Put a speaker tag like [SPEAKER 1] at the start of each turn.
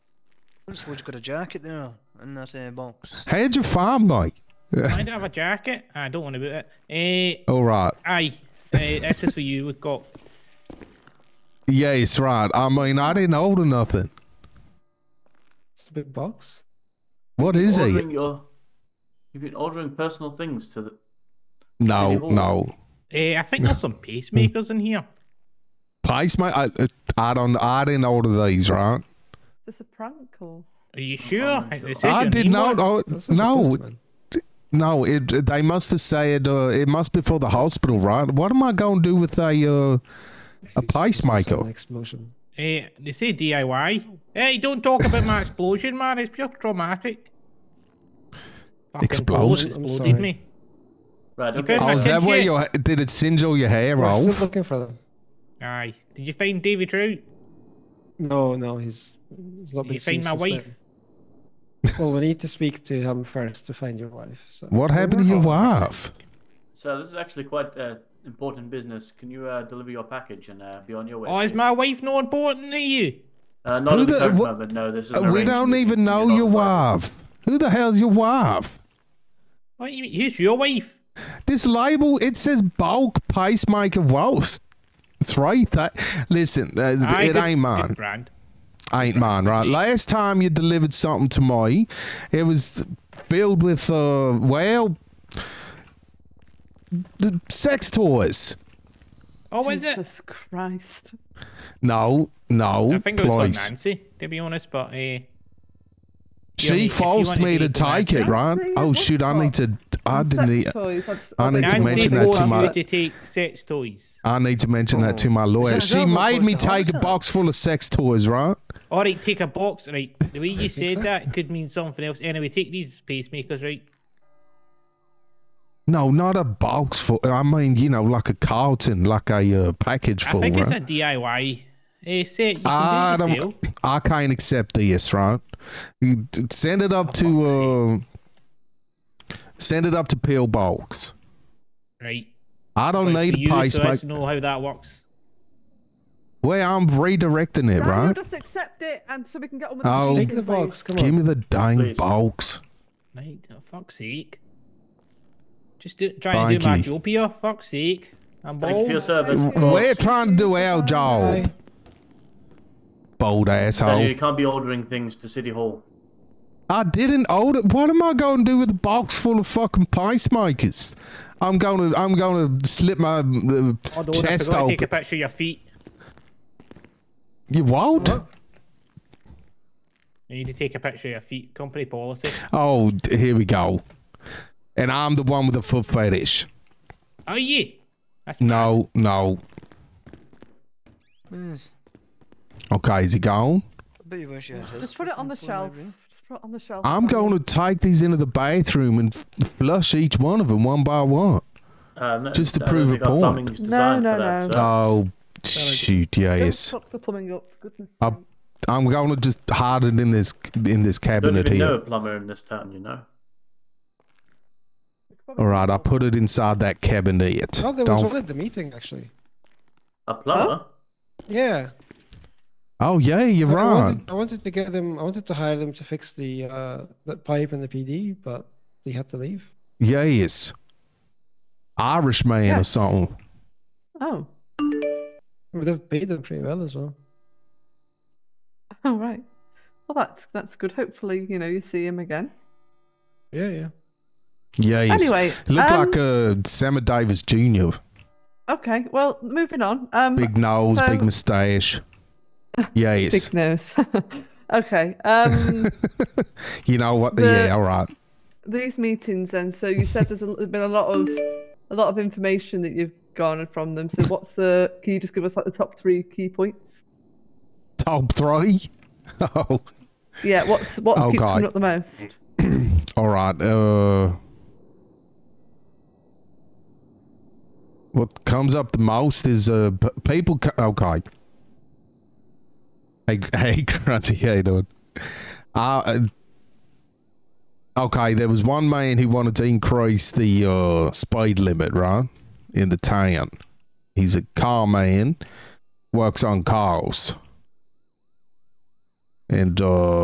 [SPEAKER 1] Huntswood's got a jacket there in that uh, box.
[SPEAKER 2] How'd you farm, mate?
[SPEAKER 3] I don't have a jacket. I don't want to boot it. Uh,
[SPEAKER 2] All right.
[SPEAKER 3] aye, uh, this is for you. We've got.
[SPEAKER 2] Yes, right. I mean, I didn't order nothing.
[SPEAKER 4] It's a big box.
[SPEAKER 2] What is it?
[SPEAKER 5] ordering your, you've been ordering personal things to the.
[SPEAKER 2] No,
[SPEAKER 5] City Hall.
[SPEAKER 2] no.
[SPEAKER 3] Uh, I think there's some pacemakers in here.
[SPEAKER 2] Place, mate. I, I don't. I didn't order these, right?
[SPEAKER 6] Is this a prank or?
[SPEAKER 3] Are you sure?
[SPEAKER 5] not sure.
[SPEAKER 3] It says
[SPEAKER 2] Oh, I
[SPEAKER 3] your
[SPEAKER 2] did
[SPEAKER 3] name
[SPEAKER 2] not.
[SPEAKER 3] on it.
[SPEAKER 2] Oh,
[SPEAKER 4] That's a
[SPEAKER 2] no,
[SPEAKER 4] postman.
[SPEAKER 2] no. It, they must have said uh, it must be for the hospital, right? What am I going to do with a uh, a pacemaker?
[SPEAKER 4] An explosion.
[SPEAKER 3] Eh, they say DIY. Hey, don't talk about my explosion, man. It's pure traumatic. Fucking
[SPEAKER 2] Explosion?
[SPEAKER 3] bullet
[SPEAKER 4] I'm
[SPEAKER 3] Exploded
[SPEAKER 4] sorry.
[SPEAKER 3] me.
[SPEAKER 5] Right,
[SPEAKER 3] You
[SPEAKER 5] okay.
[SPEAKER 3] found
[SPEAKER 2] Oh,
[SPEAKER 3] my
[SPEAKER 2] is that
[SPEAKER 3] kid
[SPEAKER 2] where
[SPEAKER 3] yet?
[SPEAKER 2] your did it singe all your hair
[SPEAKER 4] We're still
[SPEAKER 2] off?
[SPEAKER 4] looking for them.
[SPEAKER 3] Aye. Did you find Davy Trout?
[SPEAKER 4] No, no, he's he's not
[SPEAKER 3] Did
[SPEAKER 4] been
[SPEAKER 3] you
[SPEAKER 4] seen
[SPEAKER 3] find my
[SPEAKER 4] since
[SPEAKER 3] wife?
[SPEAKER 4] then. well, we need to speak to him first to find your wife. So.
[SPEAKER 2] What happened to your wife?
[SPEAKER 5] So this is actually quite uh, important business. Can you uh, deliver your package and uh, be on your way?
[SPEAKER 3] Oh, is
[SPEAKER 5] please?
[SPEAKER 3] my wife not important to you?
[SPEAKER 5] Uh, not
[SPEAKER 2] Who
[SPEAKER 5] at the,
[SPEAKER 2] the-
[SPEAKER 5] current
[SPEAKER 2] what-
[SPEAKER 5] moment. No, this is.
[SPEAKER 2] Uh, we don't even know your wife. Who the hell's your wife?
[SPEAKER 3] What you Who's your wife?
[SPEAKER 2] This label it says bulk pacemaker whilst. That's right. That listen, uh,
[SPEAKER 3] Aye,
[SPEAKER 2] it
[SPEAKER 3] good-
[SPEAKER 2] ain't
[SPEAKER 3] good
[SPEAKER 2] mine.
[SPEAKER 3] Brand.
[SPEAKER 2] ain't mine, right? Last time you delivered something to me, it was filled with, uh, well, the sex toys.
[SPEAKER 3] Oh, is it?
[SPEAKER 6] Jesus Christ.
[SPEAKER 2] No, no,
[SPEAKER 3] I think it was for
[SPEAKER 2] please.
[SPEAKER 3] Nancy, to be honest, but uh, if
[SPEAKER 2] She
[SPEAKER 3] you
[SPEAKER 2] forced
[SPEAKER 3] wanna
[SPEAKER 2] me to
[SPEAKER 3] eat the
[SPEAKER 2] take it,
[SPEAKER 3] Nancy-
[SPEAKER 2] right?
[SPEAKER 6] Nancy,
[SPEAKER 2] Oh
[SPEAKER 6] what
[SPEAKER 2] shoot, I need to. I
[SPEAKER 6] Sex
[SPEAKER 2] didn't. Need,
[SPEAKER 6] toys, that's-
[SPEAKER 2] I
[SPEAKER 6] oh,
[SPEAKER 2] need to
[SPEAKER 6] that's-
[SPEAKER 3] Nancy
[SPEAKER 2] mention that to
[SPEAKER 3] forced
[SPEAKER 2] my-
[SPEAKER 3] you to take sex toys.
[SPEAKER 2] I need to mention that to
[SPEAKER 3] Oh.
[SPEAKER 2] my lawyer.
[SPEAKER 1] that-
[SPEAKER 2] She
[SPEAKER 1] that what
[SPEAKER 2] made me
[SPEAKER 1] caused the
[SPEAKER 2] take a
[SPEAKER 1] heart
[SPEAKER 2] box full of sex toys, right?
[SPEAKER 3] All right, take a box. Right, the way you said
[SPEAKER 4] so.
[SPEAKER 3] that could mean something else. Anyway, take these pacemakers, right?
[SPEAKER 2] No, not a box full. I mean, you know, like a carton, like a uh, package full,
[SPEAKER 3] I think
[SPEAKER 2] right?
[SPEAKER 3] it's a DIY uh, set. You
[SPEAKER 2] I
[SPEAKER 3] can do it yourself.
[SPEAKER 2] don't. I can't accept this, right? You d- Send it up to. Uh, send it up to pillbox.
[SPEAKER 3] Right.
[SPEAKER 2] I don't
[SPEAKER 3] But it's for
[SPEAKER 2] need a
[SPEAKER 3] you, so let's
[SPEAKER 2] pacemaker.
[SPEAKER 3] know how that works.
[SPEAKER 2] Well, I'm redirecting it,
[SPEAKER 6] Daniel,
[SPEAKER 2] right?
[SPEAKER 6] just accept it and so we can get on with
[SPEAKER 2] Oh.
[SPEAKER 6] the
[SPEAKER 4] Take
[SPEAKER 6] meeting,
[SPEAKER 4] the box.
[SPEAKER 6] please.
[SPEAKER 4] Come
[SPEAKER 2] Give
[SPEAKER 4] on.
[SPEAKER 2] me the dang
[SPEAKER 5] Please.
[SPEAKER 2] box.
[SPEAKER 3] Right, oh, fuck's sake. Just do, trying to do my
[SPEAKER 2] Crikey.
[SPEAKER 3] job here, fuck's sake. I'm
[SPEAKER 5] Thank you for your
[SPEAKER 3] bald.
[SPEAKER 5] service.
[SPEAKER 6] Thank
[SPEAKER 5] of
[SPEAKER 6] you.
[SPEAKER 5] course.
[SPEAKER 2] We're trying to do our job,
[SPEAKER 4] Hi.
[SPEAKER 2] bold
[SPEAKER 5] Daniel,
[SPEAKER 2] asshole.
[SPEAKER 5] you can't be ordering things to City Hall.
[SPEAKER 2] I didn't order. What am I going to do with a box full of fucking pacemakers? I'm gonna, I'm gonna slip my uh,
[SPEAKER 3] Hold on, I
[SPEAKER 2] chest
[SPEAKER 3] forgot to take a
[SPEAKER 2] open.
[SPEAKER 3] picture of your feet.
[SPEAKER 2] You won't.
[SPEAKER 3] You need to take a picture of your feet. Company policy.
[SPEAKER 2] Oh, d- here we go. And I'm the one with the foot fetish.
[SPEAKER 3] Are you? That's
[SPEAKER 2] No, no.
[SPEAKER 1] Hmm,
[SPEAKER 2] Okay, is he gone?
[SPEAKER 1] I bet you wish you had his
[SPEAKER 6] Just put it on the
[SPEAKER 1] fucking phone
[SPEAKER 6] shelf.
[SPEAKER 1] library.
[SPEAKER 6] Just put it on the shelf.
[SPEAKER 2] I'm going to take these into the bathroom and f- flush each one of them one by one.
[SPEAKER 5] Uh, no,
[SPEAKER 2] Just to
[SPEAKER 5] I don't
[SPEAKER 2] prove a
[SPEAKER 5] think our
[SPEAKER 2] point.
[SPEAKER 5] plumbing's designed
[SPEAKER 6] no,
[SPEAKER 5] for that,
[SPEAKER 6] no.
[SPEAKER 5] so-
[SPEAKER 2] Oh, shoot,
[SPEAKER 6] Don't
[SPEAKER 2] yes.
[SPEAKER 6] fuck the plumbing up, for goodness
[SPEAKER 2] Up.
[SPEAKER 6] sake.
[SPEAKER 2] I'm going to just hide it in this in this
[SPEAKER 5] I don't
[SPEAKER 2] cabinet
[SPEAKER 5] even know a
[SPEAKER 2] here.
[SPEAKER 5] plumber in this town, you know.
[SPEAKER 6] We could probably
[SPEAKER 2] All right, I
[SPEAKER 6] get
[SPEAKER 2] put it inside that cabinet.
[SPEAKER 4] Oh, there was
[SPEAKER 2] Don't-
[SPEAKER 4] one at the meeting actually.
[SPEAKER 5] A plumber?
[SPEAKER 4] Yeah.
[SPEAKER 2] Oh, yeah, you're
[SPEAKER 4] I- I
[SPEAKER 2] right.
[SPEAKER 4] wanted, I wanted to get them. I wanted to hire them to fix the uh, the pipe and the PD, but they had to leave.
[SPEAKER 2] Yes. Irishman or
[SPEAKER 6] Yes.
[SPEAKER 2] something.
[SPEAKER 6] one. Oh,
[SPEAKER 4] We would have paid them pretty well as well.
[SPEAKER 6] all right. Well, that's that's good. Hopefully, you know, you see him again.
[SPEAKER 4] Yeah, yeah.
[SPEAKER 2] Yes.
[SPEAKER 6] Anyway,
[SPEAKER 2] Look
[SPEAKER 6] um,
[SPEAKER 2] like uh, Sammy Davis Jr.
[SPEAKER 6] Okay, well, moving on. Um,
[SPEAKER 2] Big nose,
[SPEAKER 6] so-
[SPEAKER 2] big moustache. Yes.
[SPEAKER 6] big nose. okay. Um,
[SPEAKER 2] you know what?
[SPEAKER 6] The-
[SPEAKER 2] yeah, all right.
[SPEAKER 6] these meetings, then. So you said there's, a, there's been a lot of a lot of information that you've garnered from them. So what's the? Can you just give us like the top three key points?
[SPEAKER 2] Top three. Oh,
[SPEAKER 6] Yeah. What's what
[SPEAKER 2] Oh,
[SPEAKER 6] keeps
[SPEAKER 2] God.
[SPEAKER 6] coming up the most?
[SPEAKER 2] all right. Uh, what comes up the most is uh p- people. Co- okay. Hey, hey, Grunty, how you doing? Uh, uh, okay, there was one man who wanted to increase the uh, speed limit, right, in the town. He's a car man, works on cars, and uh,